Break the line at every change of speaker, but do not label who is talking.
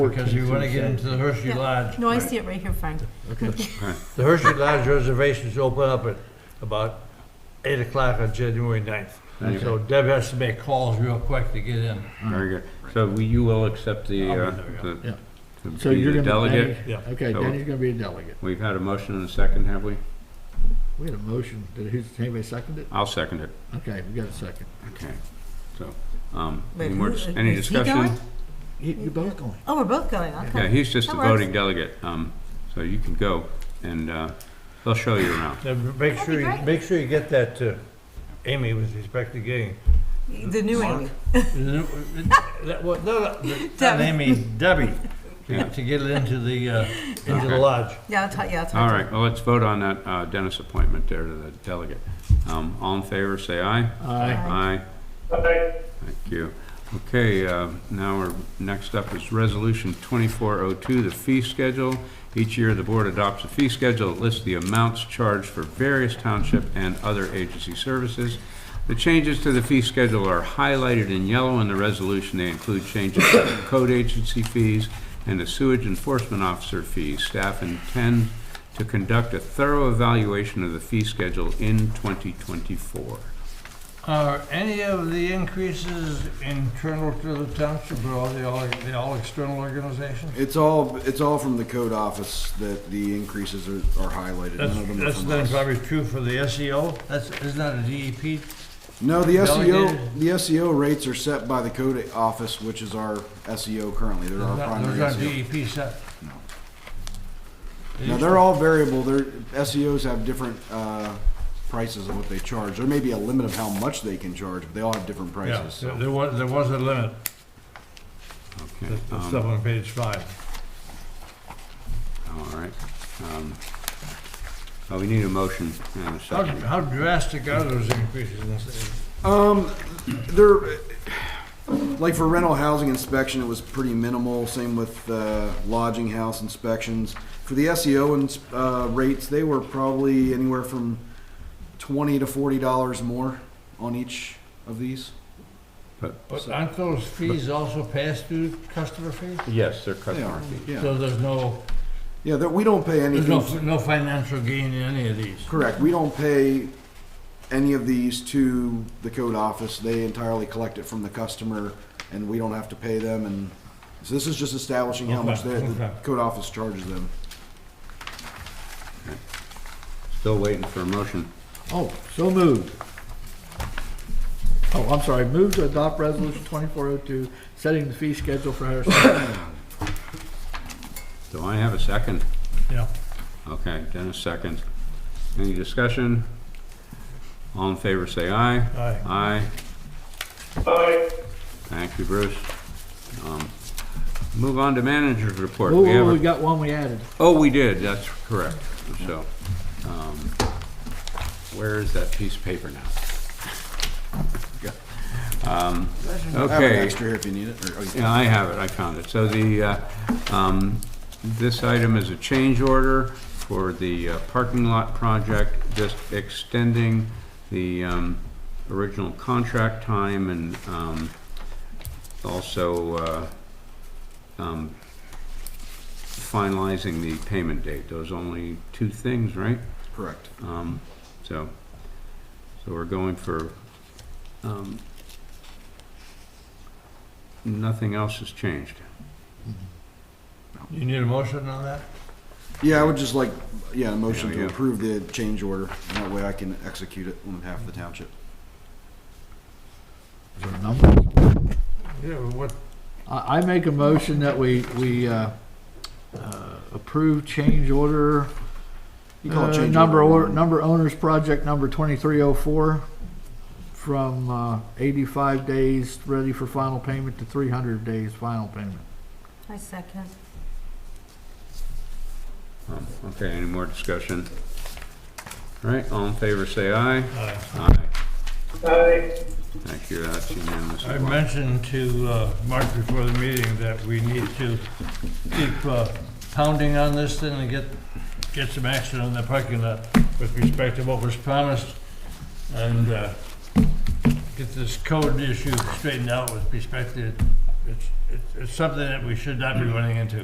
Because you want to get into the Hershey
Yeah.
Lodge.
No, I see it right here, Frank.
The Hershey Lodge reservations open up at about eight o'clock on January 9th.
Okay.
So Deb has to make calls real quick to get in.
Very good. So we, you will accept the,
I'll
uh,
be there, yeah.
the,
Yeah.
to
So
be
you're
the
gonna.
delegate?
Danny-
Yeah.
Okay,
So-
Danny's gonna be a delegate.
We've had a motion and a second, have we?
We had a motion. Did who's, anybody second it?
I'll second it.
Okay, we got a second.
Okay. So, um,
Wait,
any more,
who-
dis- any
is he
discussion?
going?
You, you're both going.
Oh, we're both going,
Yeah,
okay.
he's just the
That works.
voting delegate, um, so you can go and, uh, they'll show you around.
Now, make
That'd
sure,
be
you
great.
make sure you get that to Amy with respect to getting.
The new Amy.
That wa- no, no, Not
Debbie.
Amy, Debbie,
Yeah.
to to get it into the, uh, into
Okay.
the lodge.
Yeah, I'll talk, yeah, I'll talk.
All
to
right, well, let's vote on that uh, Dennis appointment there to the delegate. Um, All in favor, say aye.
Aye.
Aye. Thank you. Okay, uh, now we're, next up is Resolution 2402, the fee schedule. Each year, the board adopts a fee schedule that lists the amounts charged for various township and other agency services. The changes to the fee schedule are highlighted in yellow in the resolution. They include changes to the code agency fees and the sewage enforcement officer fees. Staff intend to conduct a thorough evaluation of the fee schedule in 2024.
Are any of the increases internal to the township, or are they all, they all external organizations?
It's all, it's all from the code office that the increases are, are highlighted.
That's,
None of them are
that's
from
then
us.
probably true for the E SEO, that's, isn't that a E DEP?
No, the SEO,
Delegated.
the SEO rates are set by the code office, which is our SEO currently. They're our
Those aren't-
primary E
those aren't
SEO.
DEP E set.
Now, they're all variable. Their SEOs have different, uh, prices of what they charge. There may be a limit of how much they can charge, but they all have different
Yeah,
prices.
there-
so.
there was, there was a limit,
Okay.
that's
um,
that's up on page five.
All right. um, Well, we need a motion and a
How
second.
how drastic are those increases? in this-
Um, there, like for rental housing inspection, it was pretty minimal, same with, uh, lodging house inspections. For the SEO and, uh, rates, they were probably anywhere from twenty to forty dollars more on each of these.
But aren't those fees also passed through customer fees?
Yes, they're
They are,
customer fees.
yeah.
So there's no,
Yeah, that, we don't pay
there's no,
anything,
no financial gain in any of these?
correct, we don't pay any of these to the code office, they entirely collect it from the customer, and we don't have to pay them, and, so this is just establishing how much
Okay,
they- the
okay.
code office charges them.
Still waiting for a motion.
Oh, so moved. Oh, I'm sorry, move to adopt resolution twenty-four oh two, setting the fee schedule for Harrison County.
Do I have a second?
Yeah.
Okay, Dennis seconds. Any discussion? All in favor, say aye.
Aye.
Aye. Thank you, Bruce. Um, Move on to manager's report. We have
Oh,
a-
we got one we added.
Oh, we did, that's correct. So, um, where is that piece of paper now? Um,
I have an
Okay,
extra here if you need it, or, oh, you-
yeah, I have it, I found it. So the, uh, um, this item is a change order for the uh, parking lot project, just extending the um, original contract time and um, also uh, um, finalizing the payment date. Those only two things, right?
correct.
Um, so, so we're going for, um, nothing else has changed.
You need a motion on that?
Yeah, I would just like, yeah, a motion
Yeah,
to
yeah.
approve the change order, and that way I can execute it on behalf of the township.
Is there a number?
Yeah, what,
I, I make a motion that we, we, uh, uh, approve change order.
You call it
uh,
change
Number
order.
or, number owners project number twenty-three oh four from, uh, eighty-five days ready for final payment to three hundred days final payment.
I second.
Um, Okay, any more discussion? All right, all in favor, say aye.
uh,
Aye. Thank you, that's unanimous.
I mentioned to uh, Mark before the meeting that we need to keep uh, pounding on this thing and get, get some action on the parking lot with respect to what was promised and uh, get this code issue straightened out with respect to it's, it's- it's something that we should not be running into.